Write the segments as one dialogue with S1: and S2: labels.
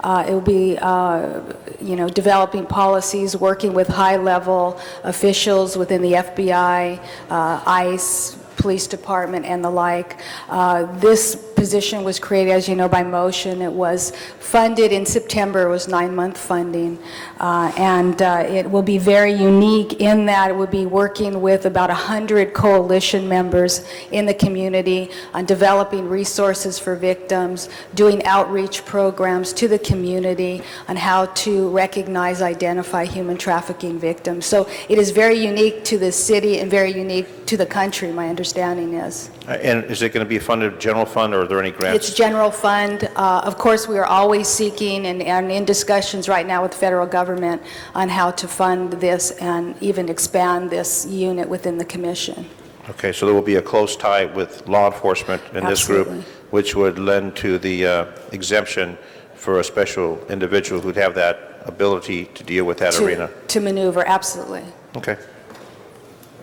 S1: Uh, It will be, uh, you know, developing policies, working with high-level officials within the FBI, uh, ICE, police department and the like. Uh, This position was created, as you know, by motion. It was funded in September, it was nine-month funding, Uh, and uh, it will be very unique in that it will be working with about 100 coalition members in the community on developing resources for victims, doing outreach programs to the community on how to recognize, identify human trafficking victims. So it is very unique to the city and very unique to the country, my understanding is.
S2: Uh, And is it going to be funded general fund, or are there any
S1: It's
S2: grants?
S1: general fund. Uh, Of course, we are always seeking and and in discussions right now with the federal government on how to fund this and even expand this unit within the commission.
S2: Okay, so there will be a close tie with law enforcement in this group,
S1: Absolutely.
S2: which would lend to the uh, exemption for a special individual who'd have that ability to deal with that
S1: to-
S2: arena.
S1: To maneuver, absolutely.
S2: Okay.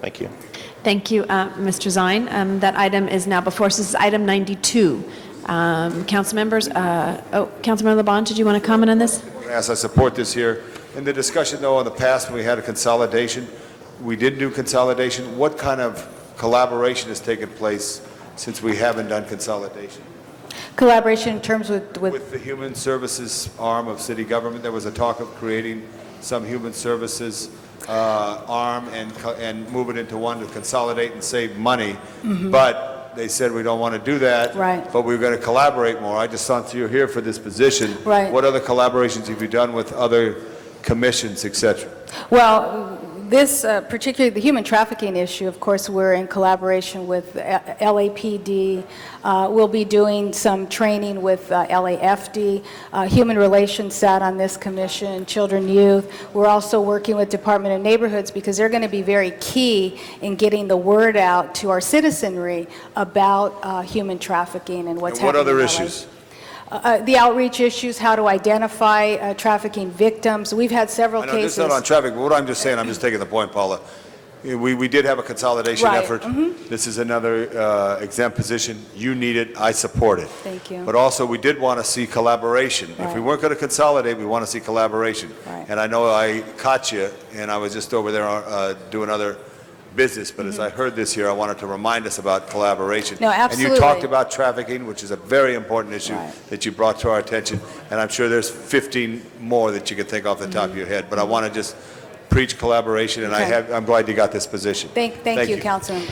S2: Thank you.
S3: Thank you, uh, Mr. Zine. Um, That item is now before us. This is item 92. Um, Council members, uh, oh, Councilmember LeBon, did you want to comment on this?
S4: As I support this here. In the discussion, though, in the past, when we had a consolidation, we did do consolidation. What kind of collaboration has taken place since we haven't done consolidation?
S1: Collaboration in terms with, with
S4: With the human services arm of city government, there was a talk of creating some human services uh, arm and, co- and move it into one to consolidate and save money. But they said, we don't want to do that.
S1: Mm-hmm. Right.
S4: But we're going to collaborate more. I just thought you're here for this position.
S1: Right.
S4: What other collaborations have you done with other commissions, et cetera?
S1: Well, this, uh, particularly the human trafficking issue, of course, we're in collaboration with uh, LAPD. Uh, We'll be doing some training with uh, LAFD. Uh, Human Relations sat on this commission, Children, Youth. We're also working with Department of Neighborhoods because they're going to be very key in getting the word out to our citizenry about uh, human trafficking and what's
S4: And what
S1: happening in
S4: other
S1: LA.
S4: issues?
S1: Uh, The outreach issues, how to identify uh, trafficking victims. We've had several
S4: I
S1: cases.
S4: know this is not on traffic, but what I'm just saying, I'm just taking the point, Paula. We, we did have a consolidation
S1: Right, mm-hmm.
S4: effort. This is another uh, exempt position. You need it, I support it.
S1: Thank you.
S4: But also, we did want to see collaboration. If we
S1: Right.
S4: weren't going to consolidate, we want to see collaboration.
S1: Right.
S4: And I know I caught you, and I was just over there uh, doing other business, but as I heard this here, I wanted to remind us about collaboration.
S1: Mm-hmm. No,
S4: And you talked
S1: absolutely.
S4: about trafficking, which is a very important issue
S1: Right.
S4: that you brought to our attention, and I'm sure there's 15 more that you could think off the top of your head, but I want to just preach collaboration, and I
S1: Okay.
S4: have, I'm glad you got this position.
S1: Thank, thank you, Councilmember.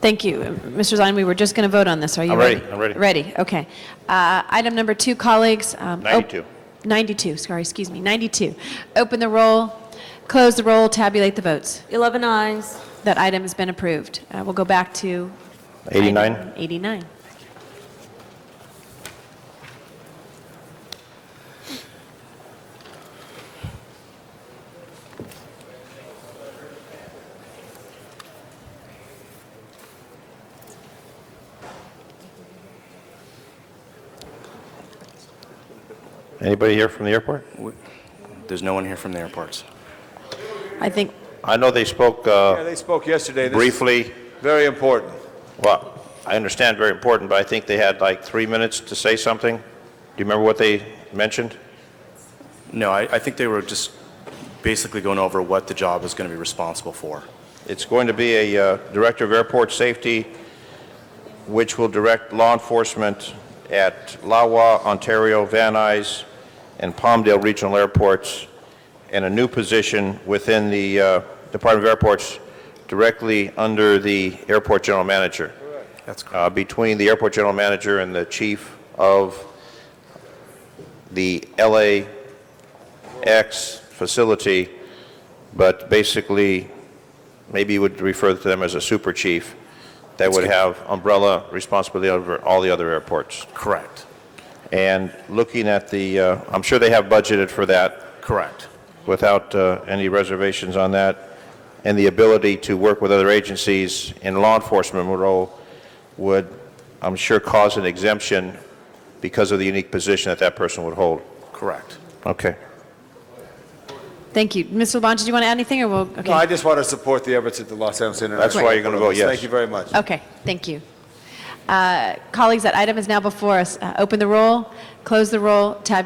S3: Thank you. Mr. Zine, we were just going to vote on this. Are you
S2: I'm
S3: ready?
S2: ready. I'm ready.
S3: Ready, okay. Uh, Item number two, colleagues. um, op-
S2: 92.
S3: 92, sorry, excuse me, 92. Open the roll, close the roll, tabulate the votes.
S5: 11 eyes.
S3: That item has been approved. Uh, We'll go back to... item
S2: 89?
S3: 89.
S2: Anybody here from the airport?
S6: There's no one here from the airports.
S3: I think,
S2: I know they spoke
S4: Yeah,
S2: uh,
S4: they spoke yesterday. This is
S2: briefly.
S4: Very important.
S2: Well, I understand very important, but I think they had like three minutes to say something. Do you remember what they mentioned?
S6: No, I, I think they were just basically going over what the job is going to be responsible for.
S2: It's going to be a uh, Director of Airport Safety, which will direct law enforcement at Lawa, Ontario, Van Nuys, and Palmdale Regional Airports, and a new position within the uh, Department of Airports directly under the Airport General Manager,
S6: That's correct.
S2: uh, between the Airport General Manager and the Chief of the LAX facility, but basically, maybe you would refer to them as a super chief that would have umbrella responsibility over all the other airports.
S6: Correct.
S2: And looking at the, uh, I'm sure they have budgeted for that
S6: Correct.
S2: without uh, any reservations on that, and the ability to work with other agencies in law enforcement role would, I'm sure, cause an exemption because of the unique position that that person would hold.
S6: Correct.
S2: Okay.
S3: thank you. Mr. LeBon, did you want to add anything, or we'll... okay.
S4: No, I just want to support the efforts at the Los Angeles International.
S2: That's why you're gonna vote yes.
S4: Thank you very much.
S3: Okay, thank you. Uh, Colleagues, that item is now before us. Uh, Open the roll, close the roll, tabulate